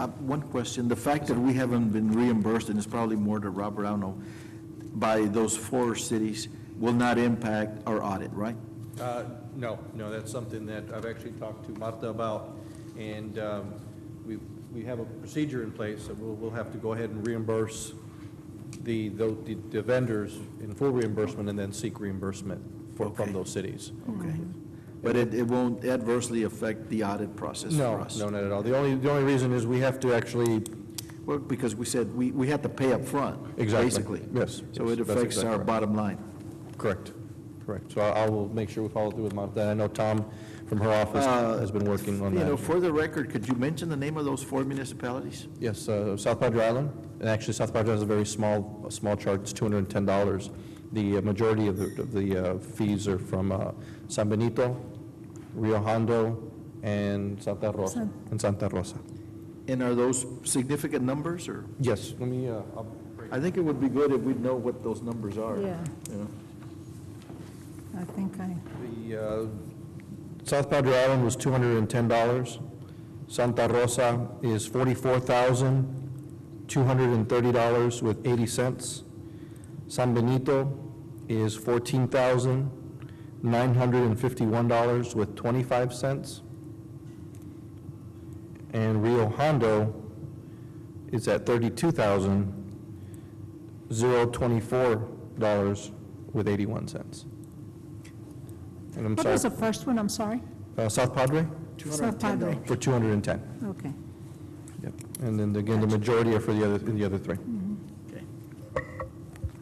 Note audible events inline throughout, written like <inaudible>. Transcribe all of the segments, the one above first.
Uh, One question, the fact that we haven't been reimbursed, and it's probably more to Robert, I don't know, by those four cities will not impact our audit, right? Uh, No, no, that's something that I've actually talked to Marta about, and um, we, we have a procedure in place, that we'll, we'll have to go ahead and reimburse the, tho- the the vendors in full reimbursement and then seek reimbursement for, from Okay. those cities. Okay. Mm-hmm. But it, it won't adversely affect the audit process for No, us? no, not at all. The only, the only reason is we have to actually, Well, because we said, we, we had to pay up front, Exactly. basically. Yes, So yes, it that's affects exactly our right. bottom line. correct, correct. So I I will make sure we follow through with Marta. I know Tom from her office has been working on Uh, You know, that. for the record, could you mention the name of those four municipalities? Yes, uh, South Padre Island, and actually South Padre Island is a very small, a small charge, it's $210. The uh, majority of the, of the uh, fees are from uh, San Benito, Rio Hondo, and Santa Rosa, San- and Santa Rosa. And are those significant numbers, or? Yes, let me, uh, I'll break- I think it would be good if we'd know what those numbers are. Yeah. you know? I think I, the, uh, South Padre Island was $210. Santa Rosa is $44,230 with 80 cents. San Benito is fourteen thousand nine hundred and fifty-one dollars with twenty-five cents. And Rio Hondo is at thirty-two thousand zero twenty-four dollars with eighty-one cents. And I'm what was the sorry, first one, I'm sorry? uh, South Padre South Padre. for two hundred and ten. Okay. Yep. And then again, the majority are for the other, the other three. Okay.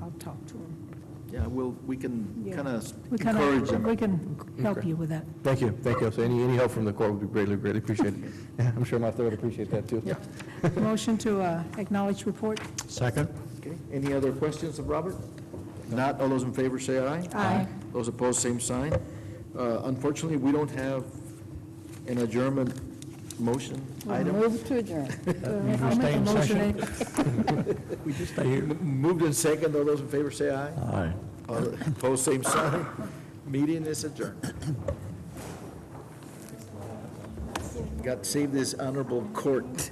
I'll talk to him. Yeah, well, we can Yeah. kind of We can, encourage them. we can help you with that. Thank you, thank you. So any, any help from the court would be greatly, greatly appreciated. <laughs> Yeah, I'm sure Martha would appreciate that, too. Motion to uh, acknowledge report? Second. Okay, any other questions of Robert? Not, all those in favor say aye. Aye. Those opposed, same sign. Uh, Unfortunately, we don't have an adjournment motion item. Move to adjourn. <laughs> I'll make a motion. M- Moved in second, all those in favor say aye. Aye. Opposed, same sign. Meeting is adjourned. Got to save this honorable court.